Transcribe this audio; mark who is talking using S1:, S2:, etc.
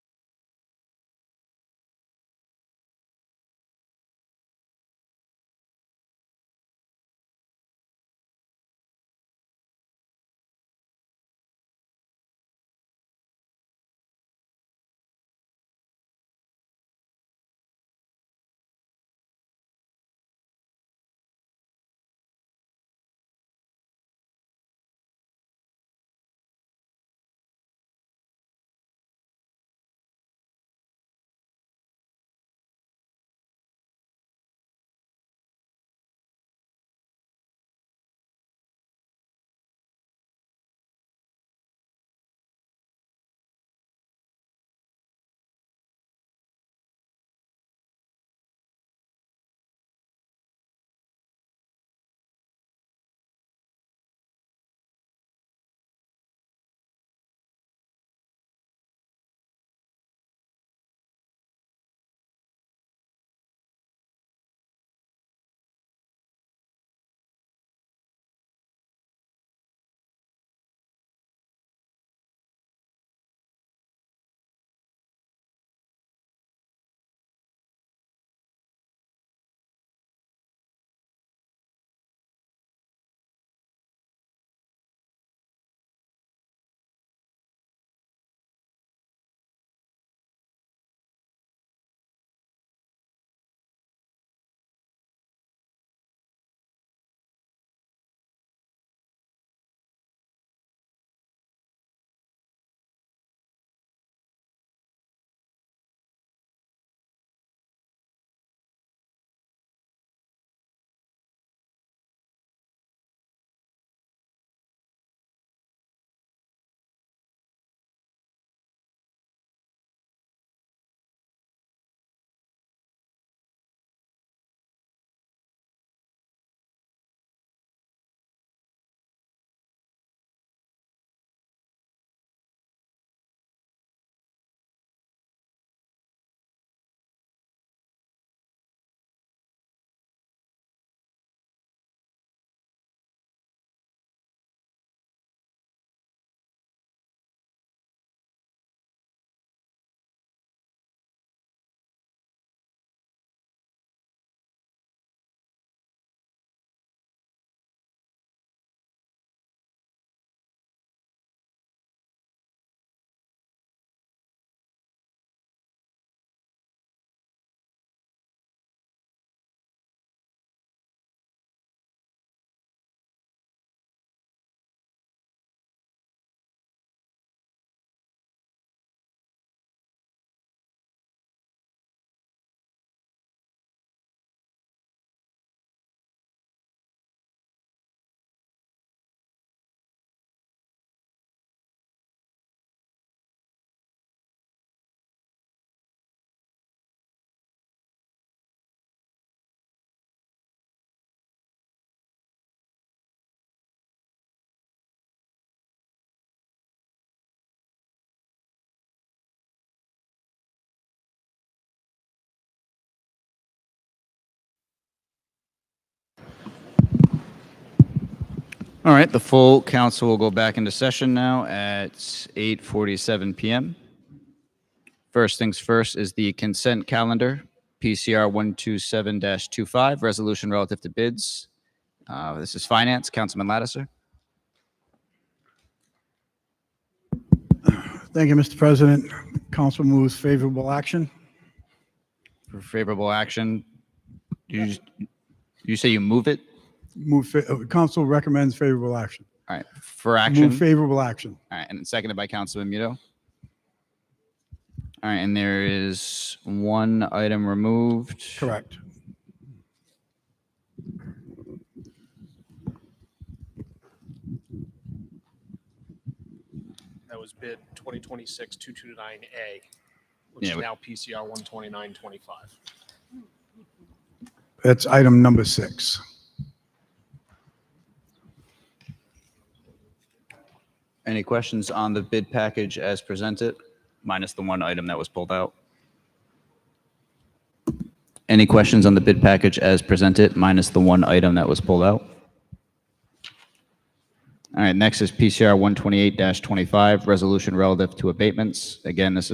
S1: All right, the full council will go back into session now at 8:47 PM. First things first is the consent calendar, PCR 127-25, resolution relative to bids. Uh, This is finance, Councilman Lattiser.
S2: Thank you, Mr. President. Council moves favorable action.
S1: For favorable action, you, just- you say you move it?
S2: Move, fa- uh, council recommends favorable action.
S1: All right, for
S2: Move
S1: action, all
S2: favorable action.
S1: right, and seconded by Councilman Muto. All right, and there is one item removed.
S2: Correct.
S3: That was bid 2026-229A, which
S1: Yeah,
S3: is
S1: we-
S3: now PCR 12925.
S2: That's item number six.
S1: Any questions on the bid package as presented, minus the one item that was pulled out? Any questions on the bid package as presented, minus the one item that was pulled out? All right, next is PCR 128-25, resolution relative to abatements. Again, this is.